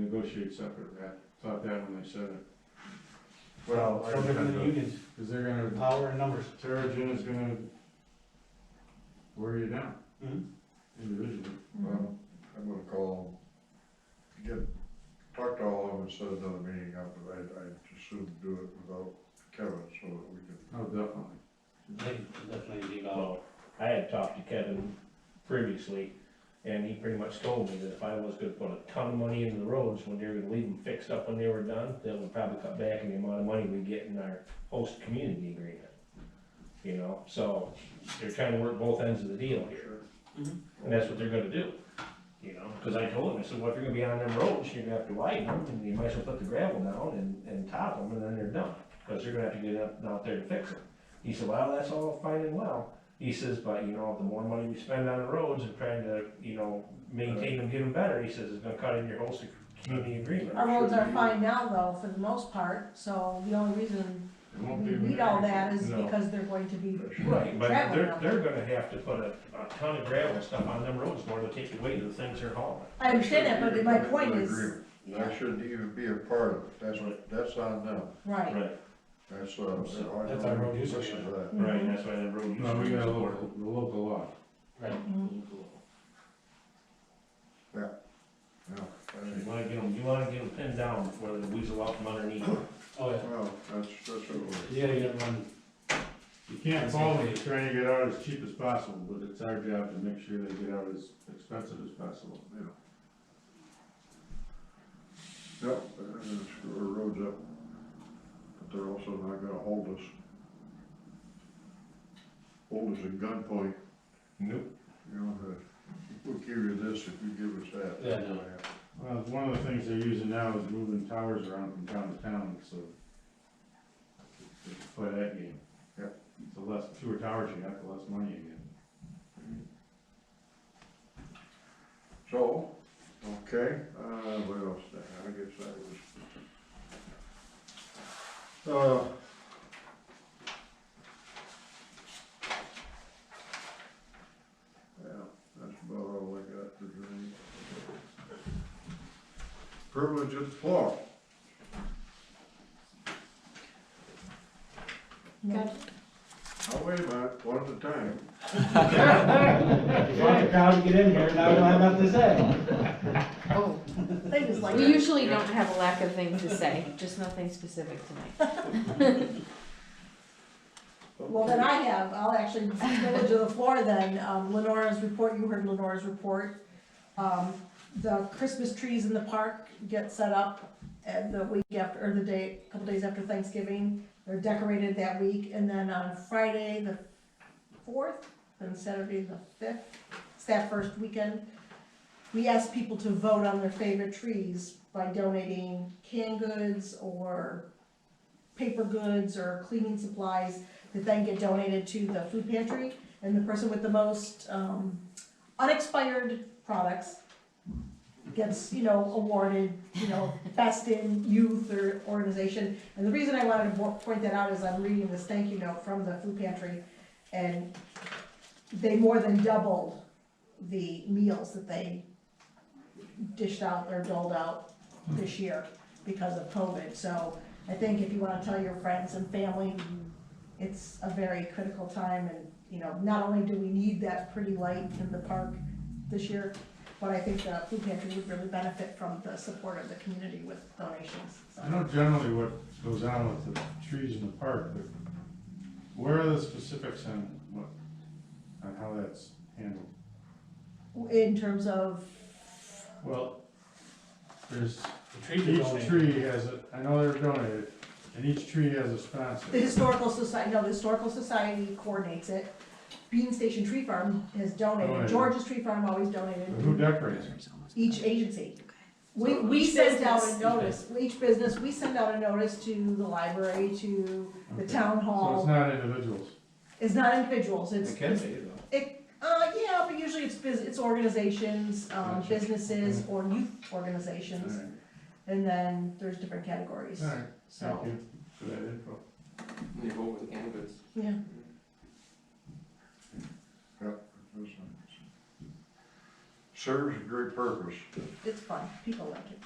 negotiate separate rep, thought that when they said it. Well, So they're gonna I- unions, Cause they're gonna, power and numbers. Terrigen is gonna wear you down Mhm. individually. Mm-hmm. well, I'm gonna call, get, talk to all of them and set another meeting up, but I, I assume do it without Kevin, so that we can. Oh, definitely. They definitely need all, Well, uh, I had talked to Kevin previously, and he pretty much told me that if I was gonna put a ton of money into the roads, when they were gonna leave them fixed up when they were done, that would probably cut back on the amount of money we get in our host community agreement. You know, so they're trying to work both ends of the deal here. Mhm. And that's what they're gonna do, you know, cause I told him, I said, well, if you're gonna be on them roads, you're gonna have to widen them, and you might as well put the gravel down and, and top them, and then they're done. Cause they're gonna have to get up, out there to fix them. He said, well, that's all fine and well, he says, but you know, the more money we spend on the roads and trying to, you know, maintain them, get them better, he says, it's gonna cut in your whole sec- community agreement. Our roads are fine now though, for the most part, so the only reason It won't we be. need all that is No. because they're going to be, Right, but they're, Gravel. they're gonna have to put a, a ton of gravel and stuff on them roads more to take away the things they're hauling. I understand that, but my That point shouldn't is, even be an agreement. yeah, That shouldn't even be a part of it, that's, Right. that's on them, right, Right, that's, uh. So, I that's don't our road use listen to that. right, Mm-hmm. and that's why that road. No, we use got a is local, important. the local law. right. Mm-hmm. No, I You mean, wanna get them, you wanna get them pinned down before they weasel out from underneath. Oh, yeah, well, that's, that's what we're. you gotta get everyone, You can't fault them for trying to get out as cheap as possible, but it's our job to make sure they get out as expensive as possible. Yep, they're gonna screw our roads up, but they're also not gonna hold us. Hold us at gunpoint, Nope. you know, that, we'll give you this if you give us that. Yeah, I know. Well, one of the things they're using now is moving towers around from town to town, so. they can Play that game. Yep. The less, fewer towers you got, the less money you get. So, okay, uh, what else, did I I guess that was. Uh. Yeah, that's about all I got for drink. Privilege of the floor. no, Oh, wait a minute, one at a time. You want the crowd to get in here, now we don't have nothing to say. Oh, they just like. we usually don't have a lack of things to say, just nothing specific tonight. Well, then I have, I'll actually, go to the floor then, um, Lenora's report, you heard Lenora's report. Um, the Christmas trees in the park get set up at the week after, or the day, a couple days after Thanksgiving. They're decorated that week, and then on Friday, the fourth, and Saturday, the fifth, it's that first weekend. We ask people to vote on their favorite trees by donating canned goods or paper goods or cleaning supplies that then get donated to the food pantry. And the person with the most um, unexpired products gets, you know, awarded, you know, best in youth or organization. And the reason I wanted to bo- point that out is I'm reading this thank you note from the food pantry, and they more than doubled the meals that they dished out or doled out this year because of COVID. So I think if you wanna tell your friends and family, it's a very critical time and, you know, not only do we need that pretty light in the park this year, but I think the food pantry would really benefit from the support of the community with donations, so. I know generally what goes on with the trees in the park, but where are the specifics on what, on how that's handled? In terms of, Well, there's, The trees are each donated. tree has a, I know they're donated, and each tree has a sponsor. the historical society, no, the historical society coordinates it. Bean Station Tree Farm has donated, Donated. George's Tree Farm always But Oh, Who donated, decorates it? each agency. We, So we each send out a business- notice, each business, we send out a notice to the library, to the Okay. town So it's hall. not individuals. It's not individuals, it's, It can be though. It, uh, yeah, but usually it's bus, it's organizations, um, Gotcha. businesses or youth organizations, Alright, and then there's different categories, alright, so, thank you for that info. They go with the canvas. yeah. Serves a great purpose. It's fun, people like it.